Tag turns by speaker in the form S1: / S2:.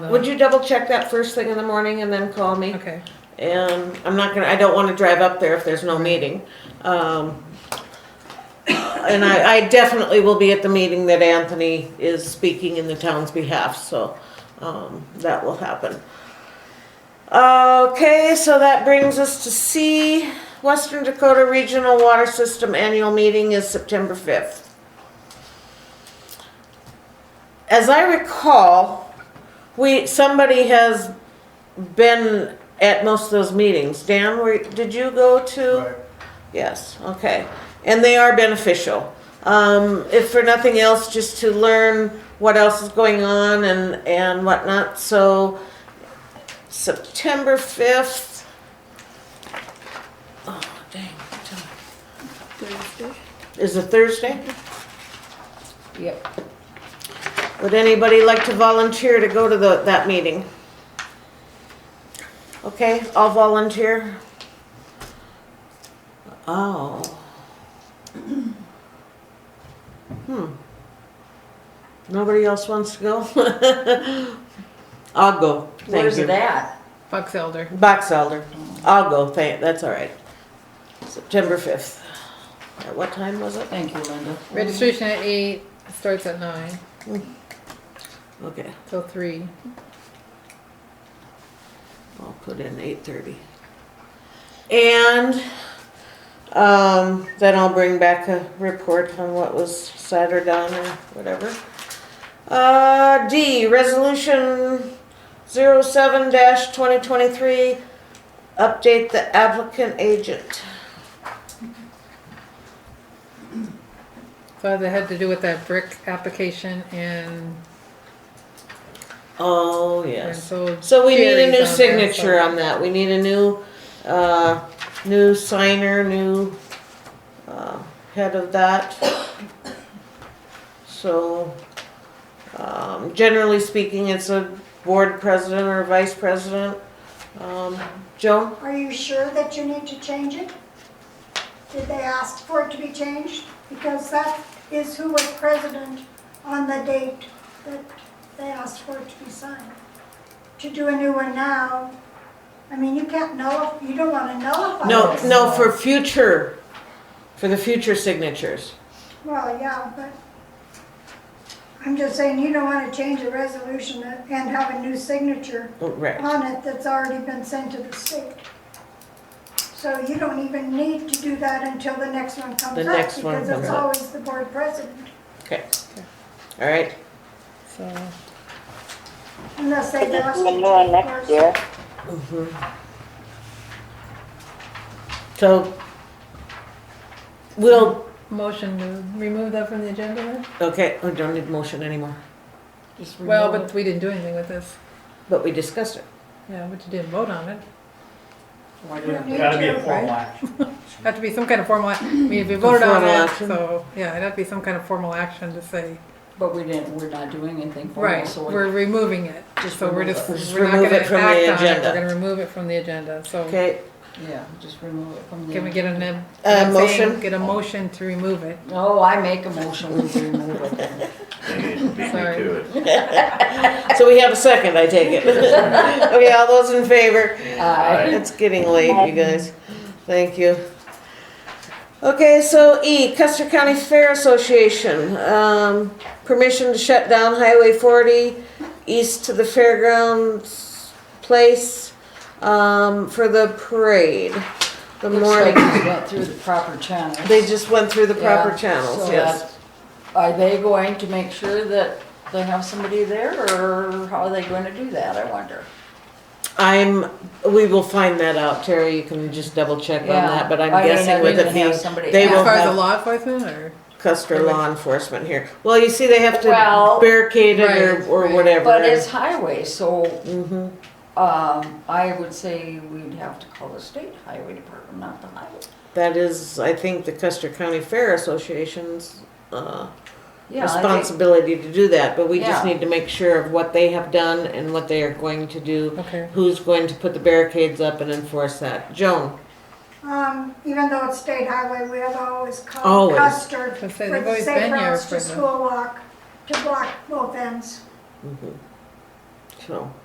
S1: Would you double check that first thing in the morning and then call me?
S2: Okay.
S1: And I'm not gonna, I don't wanna drive up there if there's no meeting. Um, and I, I definitely will be at the meeting that Anthony is speaking in the town's behalf, so, um, that will happen. Okay, so that brings us to C, Western Dakota Regional Water System Annual Meeting is September fifth. As I recall, we, somebody has been at most of those meetings. Dan, were, did you go to?
S3: Right.
S1: Yes, okay. And they are beneficial. Um, if for nothing else, just to learn what else is going on and, and whatnot. So September fifth. Oh, dang. what time? Is it Thursday?
S2: Yep.
S1: Would anybody like to volunteer to go to the, that meeting? Okay, I'll volunteer. Oh. Hmm. Nobody else wants to go? I'll go. Thank
S4: Where's
S1: you.
S4: it at?
S2: Bucks Elder.
S1: Box Elder. I'll go, thank, that's all right. September fifth. At what time was it?
S4: Thank you, Linda.
S2: Registration at eight, starts at nine
S1: Okay,
S2: till three.
S1: I'll put in eight thirty. And, um, then I'll bring back a report on what was said or done or whatever. Uh, D, resolution zero seven dash twenty twenty-three, update the applicant agent.
S2: So that had to do with that brick application and.
S1: Oh,
S2: and
S1: yes.
S2: so.
S1: So we need a
S2: Jerry's
S1: new
S2: on there,
S1: signature
S2: so-
S1: on that. We need a new, uh, new signer, new, uh, head of that. So, um, generally speaking, it's a board president or vice president. Um, Joan?
S5: Are you sure that you need to change it? Did they ask for it to be changed? Because that is who was president on the date that they asked for it to be signed. To do a new one now, I mean, you can't know, you don't want to nullify
S1: No,
S5: this.
S1: no, for future, for the future signatures.
S5: Well, yeah, but I'm just saying, you don't want to change a resolution and have a new signature
S1: Oh, Right.
S5: on it that's already been sent to the state. So you don't even need to do that until the next one comes up.
S1: The next one
S5: Because
S1: comes
S5: it's
S1: up.
S5: always the board president,
S1: Okay. All right.
S2: So,
S5: unless they've asked.
S6: The
S5: you
S6: new
S5: to,
S6: one
S5: of
S6: next
S5: course.
S6: year.
S1: Mm-hmm. So we'll,
S2: motion to remove that from the agenda then?
S1: okay, I don't need motion anymore,
S4: Just
S2: Well,
S4: remove
S2: but we didn't do anything with this.
S1: but we discussed it.
S2: Yeah, but you didn't vote on it.
S4: it. Why
S5: You
S4: do
S5: need
S3: It's gotta be a
S5: to,
S3: formal action.
S2: Have to be some kind of formal, act- I mean, if you voted on
S1: formal
S2: it,
S1: action.
S2: so, yeah, it'd have to be some kind of formal action to say,
S4: But we didn't, we're not doing anything for
S2: right,
S4: it, so
S2: we're
S4: we're
S2: removing it.
S4: Just
S2: So we're
S4: remove
S2: just,
S4: it.
S1: Just
S2: we're not
S1: remove
S2: gonna
S1: it
S2: act
S1: from the
S2: on it,
S1: agenda.
S2: we're gonna remove it from the agenda, so.
S1: Okay,
S4: yeah, just remove it from the.
S2: Can we get an, am-
S1: A Uh,
S2: I'm saying
S1: motion?
S2: Get a motion to remove it.
S4: Oh, I make a motion we remove it then.
S7: They beat me
S2: Sorry.
S7: to it.
S1: so we have a second, I take it. Okay, all those in favor?
S4: Aye.
S1: It's getting late, you guys. Thank you. Okay, so E, Custer County Fair Association, um, permission to shut down Highway forty east to the fairgrounds place, um, for the parade. The
S4: Looks like
S1: morning,
S4: we went through the proper channels.
S1: they just went through the proper
S4: Yeah,
S1: channels,
S4: so
S1: yes.
S4: that- Are they going to make sure that they have somebody there, or how are they going to do that, I wonder?
S1: I'm, we will find that out, Terry, you can just double check on
S4: Yeah.
S1: that, but
S4: I
S1: I'm
S4: mean,
S1: guessing
S4: I
S1: with
S4: didn't
S1: it
S4: have
S1: being,
S4: somebody
S1: they
S4: ask.
S1: will
S2: As far as the
S1: have
S2: law enforcement or?
S1: Custer law enforcement here. Well, you see, they have to
S4: Well,
S1: barricade it or,
S2: right,
S1: or
S2: right.
S1: whatever.
S4: But it's highway, so,
S1: hmm
S4: um, I would say we'd have to call the state highway department, not the highway.
S1: that is, I think, the Custer County Fair Association's, uh,
S4: Yeah, I think,
S1: responsibility to do that, but we just
S4: Yeah.
S1: need to make sure of what they have done and what they are going to do,
S2: Okay.
S1: who's going to put the barricades up and enforce that. Joan?
S5: Um, even though it's state highway, we have always called
S1: Always.
S5: Custer for
S2: They say they've
S5: the
S2: always
S5: safe
S2: been here
S5: routes
S2: for
S5: to
S2: the-
S5: school walk, to block both ends.
S1: Mhm. so.